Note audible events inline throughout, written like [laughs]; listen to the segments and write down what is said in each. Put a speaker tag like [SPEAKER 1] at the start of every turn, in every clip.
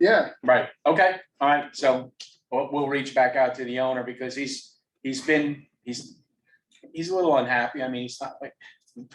[SPEAKER 1] Yeah,
[SPEAKER 2] Right, okay, all right, so we'll, we'll reach back out to the owner because he's, he's been, he's, he's a little unhappy. I mean, he's not like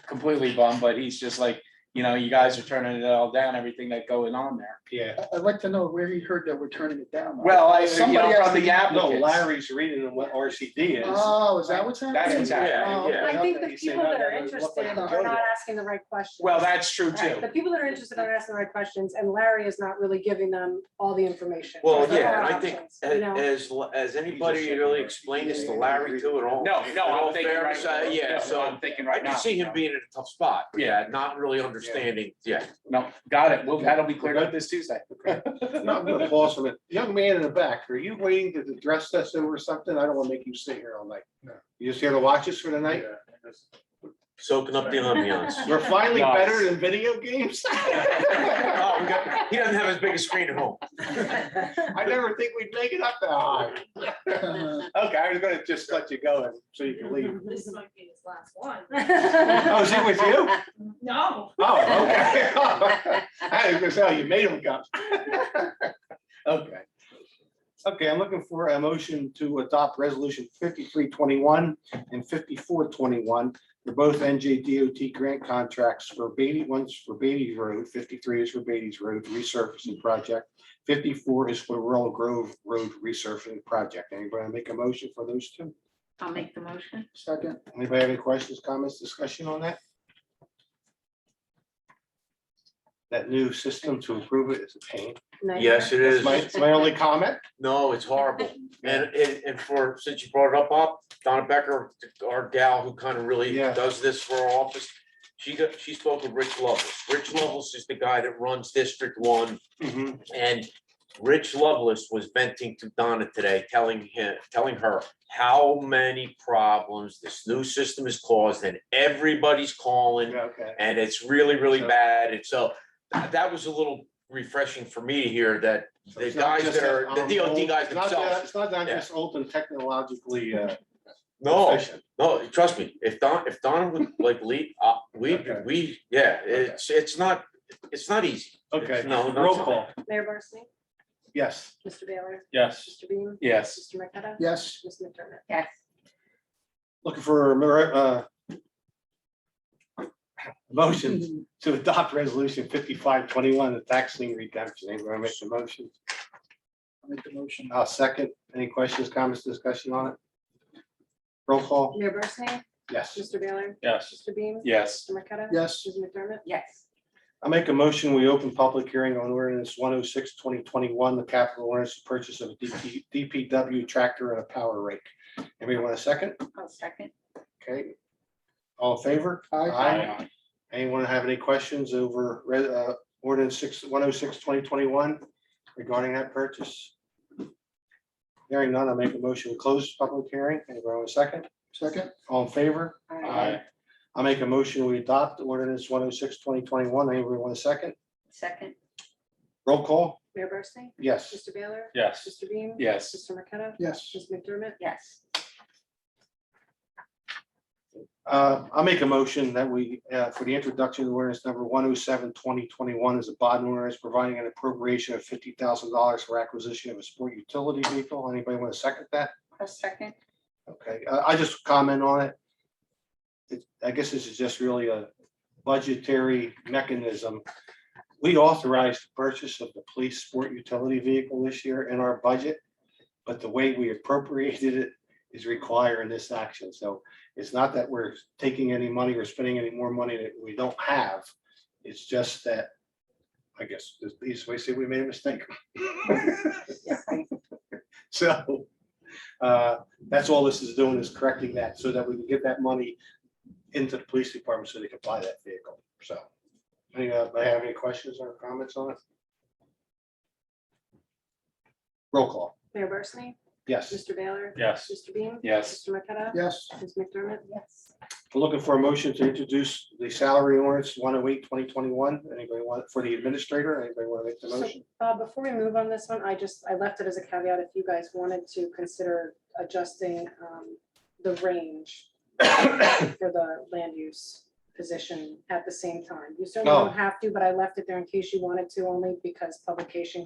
[SPEAKER 2] completely bummed, but he's just like, you know, you guys are turning it all down, everything that going on there.
[SPEAKER 3] Yeah.
[SPEAKER 1] I- I'd like to know where he heard that we're turning it down.
[SPEAKER 2] Well, I, you
[SPEAKER 1] Somebody
[SPEAKER 2] know,
[SPEAKER 1] has
[SPEAKER 2] from
[SPEAKER 1] to-
[SPEAKER 2] the
[SPEAKER 3] No,
[SPEAKER 2] applicants.
[SPEAKER 3] Larry's reading them what RCD is.
[SPEAKER 4] Uh,
[SPEAKER 1] Oh, is that what's happening?
[SPEAKER 2] That's what's happening.
[SPEAKER 1] Oh,
[SPEAKER 5] I think the
[SPEAKER 3] You say,
[SPEAKER 5] people
[SPEAKER 3] "No,
[SPEAKER 5] that
[SPEAKER 3] no,
[SPEAKER 5] are
[SPEAKER 3] no, it looked like
[SPEAKER 5] interested
[SPEAKER 3] a
[SPEAKER 5] are
[SPEAKER 3] photo."
[SPEAKER 5] not asking the right questions.
[SPEAKER 2] Well, that's true
[SPEAKER 5] Right,
[SPEAKER 2] too.
[SPEAKER 5] The people that are interested are asking the right questions and Larry is not really giving them all the information.
[SPEAKER 6] Well,
[SPEAKER 5] There
[SPEAKER 6] yeah,
[SPEAKER 5] are
[SPEAKER 6] and I think
[SPEAKER 5] options, you know?
[SPEAKER 6] as, as anybody really explained this to Larry too at all.
[SPEAKER 2] No,
[SPEAKER 6] in
[SPEAKER 2] no,
[SPEAKER 6] all
[SPEAKER 2] I'm thinking
[SPEAKER 6] fairness, uh,
[SPEAKER 2] right.
[SPEAKER 6] Yeah,
[SPEAKER 2] no,
[SPEAKER 6] so
[SPEAKER 2] I'm thinking
[SPEAKER 6] I
[SPEAKER 2] right now.
[SPEAKER 6] can see him being in a tough spot.
[SPEAKER 2] Yeah.
[SPEAKER 6] Not really understanding, yeah.
[SPEAKER 2] No, got it. Well, that'll be cleared up this Tuesday.
[SPEAKER 4] No, I'm gonna pause on it. Young man in the back, are you waiting to address us over something? I don't wanna make you sit here all night.
[SPEAKER 1] No.
[SPEAKER 4] You just here to watch us for the night?
[SPEAKER 6] Soaking up the ambiance.
[SPEAKER 2] [laughs]
[SPEAKER 4] We're finally
[SPEAKER 2] Nice.
[SPEAKER 4] better than video games? [laughs]
[SPEAKER 6] Oh, we got- He doesn't have as big a screen at home.
[SPEAKER 4] I never think we'd make it up that high.
[SPEAKER 1] Uh,
[SPEAKER 4] Okay, I was gonna just let you go and- so you can leave.
[SPEAKER 5] [laughs]
[SPEAKER 7] This might be his last one.
[SPEAKER 8] [laughs]
[SPEAKER 4] Oh, is he with you?
[SPEAKER 7] No.
[SPEAKER 4] Oh, okay. [laughs] I was gonna say, oh, you made him come. [laughs] Okay. Okay, I'm looking for a motion to adopt resolution fifty-three twenty-one and fifty-four twenty-one. They're both NJDOT grant contracts for Beatty, one's for Beatty Road, fifty-three is for Beatty's Road resurfacing project. Fifty-four is for Laurel Grove Road resurfacing project. Anybody wanna make a motion for those two?
[SPEAKER 8] I'll make the motion.
[SPEAKER 1] Second,
[SPEAKER 4] Anybody have any questions, comments, discussion on that? That new system to approve it is a pain.
[SPEAKER 6] Yes, it
[SPEAKER 4] That's my,
[SPEAKER 6] is.
[SPEAKER 4] that's my only comment.
[SPEAKER 6] No, it's horrible. And, and, and for, since you brought it up, Bob, Donna Becker, our gal who kind of really
[SPEAKER 4] Yeah.
[SPEAKER 6] does this for our office. She got, she spoke with Rich Lovelace. Rich Lovelace is the guy that runs District One. Mm-hmm. And Rich Lovelace was venting to Donna today, telling him, telling her how many problems this new system has caused and everybody's calling
[SPEAKER 4] Okay.
[SPEAKER 6] and it's really, really
[SPEAKER 4] So-
[SPEAKER 6] bad. And so tha- that was a little refreshing for me to hear that the guys that are, the DOT guys
[SPEAKER 4] It's not that-
[SPEAKER 6] themselves.
[SPEAKER 4] It's not that just old and technologically uh,
[SPEAKER 6] No,
[SPEAKER 4] efficient.
[SPEAKER 6] no, trust me, if Don, if Donna would like lead, uh, we,
[SPEAKER 4] Okay.
[SPEAKER 6] we, yeah, it's, it's not, it's not easy.
[SPEAKER 4] Okay,
[SPEAKER 6] No, no.
[SPEAKER 4] roll call.
[SPEAKER 5] Mayor Barsney,
[SPEAKER 4] Yes.
[SPEAKER 5] Mr. Baylor,
[SPEAKER 2] Yes.
[SPEAKER 5] Mr. Beam,
[SPEAKER 2] Yes.
[SPEAKER 5] Mr. McCutcheon,
[SPEAKER 1] yes.
[SPEAKER 5] Ms. McDermott.
[SPEAKER 8] Yes.
[SPEAKER 4] Looking for a mer- uh, motion to adopt resolution fifty-five twenty-one, the tax lien redemption. Anybody wanna make the motion?
[SPEAKER 1] I'll Make the motion.
[SPEAKER 4] I'll second. Any questions, comments, discussion on it? Roll
[SPEAKER 3] Oh.
[SPEAKER 4] call.
[SPEAKER 5] Mayor Barsney,
[SPEAKER 4] Yes.
[SPEAKER 5] Mr. Baylor,
[SPEAKER 2] Yes.
[SPEAKER 5] Mr. Beam,
[SPEAKER 2] Yes.
[SPEAKER 5] Mr. McCutcheon.
[SPEAKER 1] Yes.
[SPEAKER 5] Ms. McDermott.
[SPEAKER 8] Yes.
[SPEAKER 4] I make a motion, we open public hearing on ordinance 106-2021, the capital ordinance to purchase of a DP DPW tractor and a power rake. Anybody want a second?
[SPEAKER 8] I'll second.
[SPEAKER 4] Okay. All in favor?
[SPEAKER 1] Aye.
[SPEAKER 4] Aye. Anyone have any questions over re- uh, ordinance oh 6 106-2021 regarding that purchase? Hearing none, I make a motion to close public hearing. Anybody want a second?
[SPEAKER 1] Second,
[SPEAKER 4] All in favor?
[SPEAKER 8] Aye.
[SPEAKER 4] I make a motion, we adopt ordinance 106-2021. Anybody want a second?
[SPEAKER 8] Second.
[SPEAKER 4] Roll call?
[SPEAKER 5] Mayor Barsney,
[SPEAKER 4] Yes.
[SPEAKER 5] Mr. Baylor,
[SPEAKER 2] Yes.
[SPEAKER 5] Mr. Beam.
[SPEAKER 2] Yes.
[SPEAKER 5] Mr. McCutcheon,
[SPEAKER 1] yes.
[SPEAKER 5] Ms. McDermott.
[SPEAKER 8] Yes.
[SPEAKER 4] Uh, I'll make a motion that we, uh, for the introduction of ordinance number 107 2021 is a bond ordinance providing an appropriation of fifty thousand dollars for acquisition of a sport utility vehicle. Anybody want to second that?
[SPEAKER 8] I'll second.
[SPEAKER 4] Okay, I, I just comment on it. It- I guess this is just really a budgetary mechanism. We authorized the purchase of the police sport utility vehicle this year in our budget. But the way we appropriated it is requiring this action. So it's not that we're taking any money or spending any more money that we don't have. It's just that, I guess, the easiest way to say we made a mistake. [laughs] So, uh, that's all this is doing is correcting that so that we can get that money into the police department so they can buy that vehicle. So. Any, uh, I have any questions or comments on it? Roll call.
[SPEAKER 5] Mayor Barsney,
[SPEAKER 4] Yes.
[SPEAKER 5] Mr. Baylor,
[SPEAKER 2] Yes.
[SPEAKER 5] Mr. Beam.
[SPEAKER 2] Yes.
[SPEAKER 5] Mr. McCutcheon,
[SPEAKER 1] Yes,
[SPEAKER 5] Ms. McDermott.
[SPEAKER 8] Yes.
[SPEAKER 4] We're looking for a motion to introduce the salary ordinance 108 2021. Anybody want, for the administrator, anybody want to make the
[SPEAKER 5] So,
[SPEAKER 4] motion?
[SPEAKER 5] Uh, before we move on this one, I just, I left it as a caveat if you guys wanted to consider adjusting, um, the range for the land use position at the same time. You certainly
[SPEAKER 4] No.
[SPEAKER 5] don't have to, but I left it there in case you wanted to, only because publication